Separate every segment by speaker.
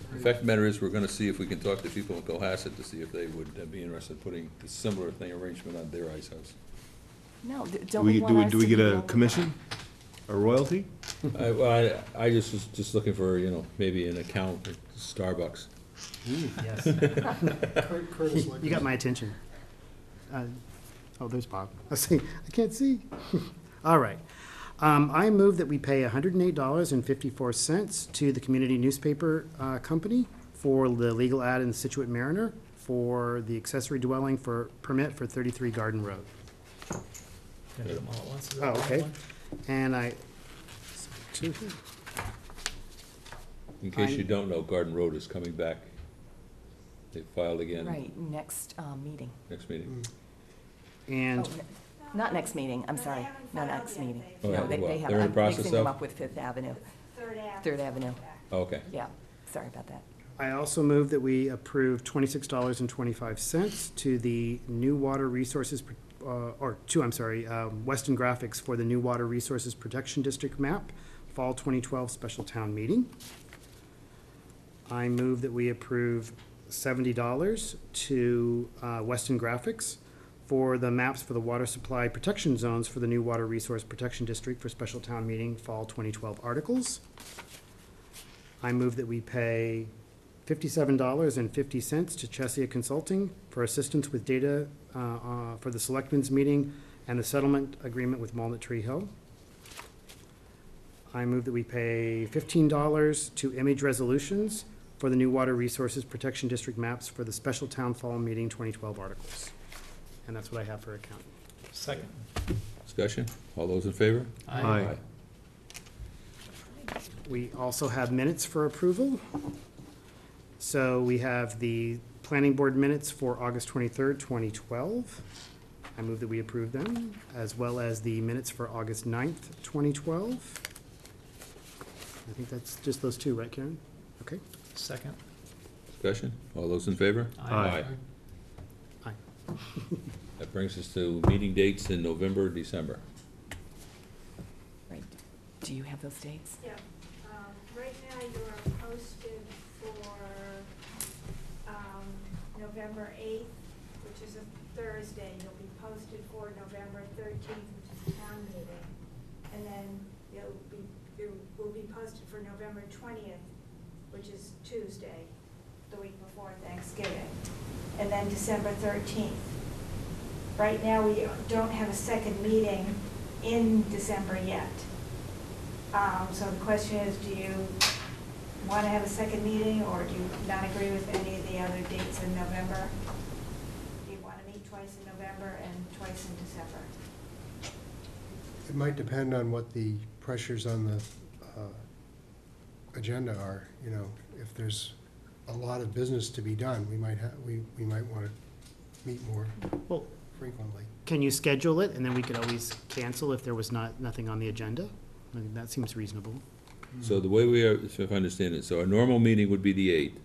Speaker 1: The
Speaker 2: previous.
Speaker 1: fact of the matter is, we're gonna see if we can talk to people in Cohasset to see if they would uh, be interested in putting a similar thing arrangement on their ice house.
Speaker 3: No, d-
Speaker 4: Do
Speaker 3: don't
Speaker 4: we,
Speaker 3: we
Speaker 4: do
Speaker 3: want
Speaker 4: we,
Speaker 3: us
Speaker 4: do we
Speaker 3: to be
Speaker 4: get
Speaker 3: the
Speaker 4: a
Speaker 3: only-
Speaker 4: commission? A royalty?
Speaker 1: I, I, I just was just looking for, you know, maybe an account at Starbucks.
Speaker 2: Yes.
Speaker 5: Cur- Curtis
Speaker 2: You got
Speaker 5: Liquors.
Speaker 2: my attention. Uh, Oh, there's Bob. I see, I can't see. All right. Um, I move that we pay hundred and eight dollars and fifty-four cents to the community newspaper, uh, company for the legal ad in Situate Mariner for the accessory dwelling for, permit for thirty-three Garden Road.
Speaker 6: Gotta do them all at once. Is that
Speaker 2: Oh,
Speaker 6: the
Speaker 2: okay.
Speaker 6: one?
Speaker 2: And I,
Speaker 1: In case you
Speaker 2: I'm-
Speaker 1: don't know, Garden Road is coming back. They filed again
Speaker 3: Right, next uh, meeting.
Speaker 1: next meeting.
Speaker 3: Oh,
Speaker 2: and,
Speaker 3: n- Not next meeting, I'm
Speaker 7: No, they
Speaker 3: sorry,
Speaker 7: haven't
Speaker 3: not
Speaker 7: filed
Speaker 3: next
Speaker 7: yet.
Speaker 3: meeting.
Speaker 1: Oh,
Speaker 3: No,
Speaker 1: yeah,
Speaker 3: they,
Speaker 1: well,
Speaker 3: they have,
Speaker 1: they're in
Speaker 3: I'm
Speaker 1: process
Speaker 3: mixing them
Speaker 1: of-
Speaker 3: up with Fifth Avenue,
Speaker 7: Third Ave.
Speaker 3: Third Avenue,
Speaker 1: Okay.
Speaker 3: yeah, sorry about that.
Speaker 2: I also move that we approve twenty-six dollars and twenty-five cents to the New Water Resources, uh, or two, I'm sorry, uh, Weston Graphics for the New Water Resources Protection District map, Fall twenty twelve special town meeting. I move that we approve seventy dollars to, uh, Weston Graphics for the maps for the water supply protection zones for the New Water Resource Protection District for special town meeting, Fall twenty twelve articles. I move that we pay fifty-seven dollars and fifty cents to Chesia Consulting for assistance with data uh, uh, for the selectmen's meeting and the settlement agreement with Walnut Tree Hill. I move that we pay fifteen dollars to Image Resolutions for the new Water Resources Protection District maps for the special town fall meeting twenty twelve articles. And that's what I have for account.
Speaker 6: Second.
Speaker 1: Discussion? All those in favor?
Speaker 4: Aye.
Speaker 2: We also have minutes for approval. So we have the planning board minutes for August twenty-third, twenty twelve. I move that we approve them, as well as the minutes for August 9th, twenty twelve. I think that's just those two, right, Karen? Okay.
Speaker 6: Second.
Speaker 1: Discussion? All those in favor?
Speaker 4: Aye.
Speaker 2: Aye.
Speaker 1: That brings us to meeting dates in November, December.
Speaker 3: Right, do you have those dates?
Speaker 7: Yeah, um, right now you are posted for, um, November eighth, which is a Thursday. You'll be posted for November thirteenth, which is a town meeting. And then you'll be, you will be posted for November twentieth, which is Tuesday, the week before Thanksgiving. And then December thirteenth. Right now, we don't have a second meeting in December yet. Um, So the question is, do you want to have a second meeting, or do you not agree with any of the other dates in November? Do you want to meet twice in November and twice in December?
Speaker 5: It might depend on what the pressures on the uh, agenda are, you know. If there's a lot of business to be done, we might have, we, we might want to meet more
Speaker 2: Well,
Speaker 5: frequently.
Speaker 2: can you schedule it, and then we could always cancel if there was not, nothing on the agenda? I think that seems reasonable.
Speaker 1: So the way we are, if I understand it, so our normal meeting would be the eighth.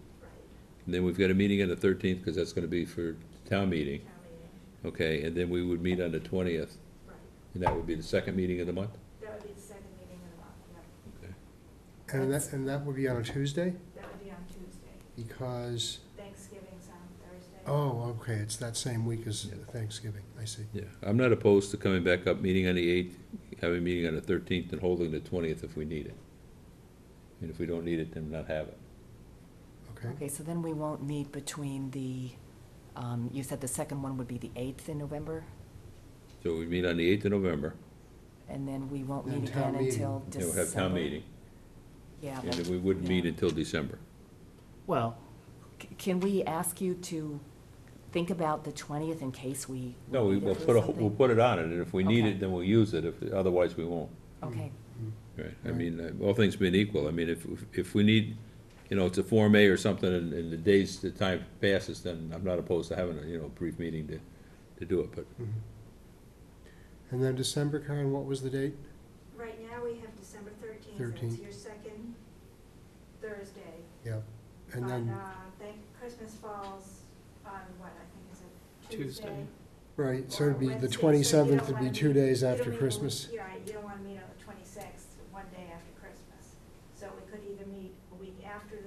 Speaker 1: And then we've got a meeting on the thirteenth, because that's gonna be for town meeting,
Speaker 7: Town meeting,
Speaker 1: okay? And then we would meet on the twentieth,
Speaker 7: right.
Speaker 1: and that would be the second meeting of the month?
Speaker 7: That would be the second meeting of the month, yeah.
Speaker 5: And that, and that would be on a Tuesday
Speaker 7: That would be on Tuesday.
Speaker 5: because,
Speaker 7: Thanksgiving's on Thursday.
Speaker 5: oh, okay, it's that same week as Thanksgiving, I see.
Speaker 1: Yeah, I'm not opposed to coming back up, meeting on the eighth, having a meeting on the thirteenth, and holding the twentieth if we need it. And if we don't need it, then not have it.
Speaker 5: Okay,
Speaker 3: Okay, so then we won't meet between the, um, you said the second one would be the eighth in November,
Speaker 1: So we meet on the eighth of November,
Speaker 3: and then we won't
Speaker 5: Then
Speaker 3: meet
Speaker 5: town
Speaker 3: again
Speaker 5: meeting.
Speaker 3: until
Speaker 1: and
Speaker 3: December.
Speaker 1: we'll have town meeting,
Speaker 3: Yeah,
Speaker 1: and
Speaker 3: but
Speaker 1: then we wouldn't meet
Speaker 3: yeah.
Speaker 1: until December.
Speaker 2: Well,
Speaker 3: C- Can we ask you to think about the twentieth in case we?
Speaker 1: No, we,
Speaker 3: need it
Speaker 1: we'll
Speaker 3: for
Speaker 1: put a,
Speaker 3: something?
Speaker 1: we'll put it on it, and if we need
Speaker 3: Okay.
Speaker 1: it, then we'll use it, if, otherwise we won't.
Speaker 3: Okay,
Speaker 1: Right, I
Speaker 5: Right.
Speaker 1: mean, uh, all things being equal, I mean, if, if we need, you know, it's a Form A or something, and, and the days, the time passes, then I'm not opposed to having a, you know, brief meeting to, to do it, but
Speaker 5: Mm-hmm. and then December, Karen, what was the date?
Speaker 7: Right now, we have December thirteenth, that's
Speaker 5: 13th.
Speaker 7: your second Thursday.
Speaker 5: Yep, and
Speaker 7: on,
Speaker 5: then,
Speaker 7: uh, thank, Christmas falls on what, I think is it
Speaker 6: Tuesday.
Speaker 7: Tuesday?
Speaker 5: right, so it'd be,
Speaker 7: or Wednesday,
Speaker 5: the
Speaker 7: so you
Speaker 5: twenty-seventh
Speaker 7: don't
Speaker 5: would be
Speaker 7: wanna
Speaker 5: two
Speaker 7: meet-
Speaker 5: days
Speaker 7: you don't
Speaker 5: after
Speaker 7: meet on the-
Speaker 5: Christmas.
Speaker 7: You're right, you don't wanna meet on the twenty-sixth, one day after Christmas. So we could either meet a week after the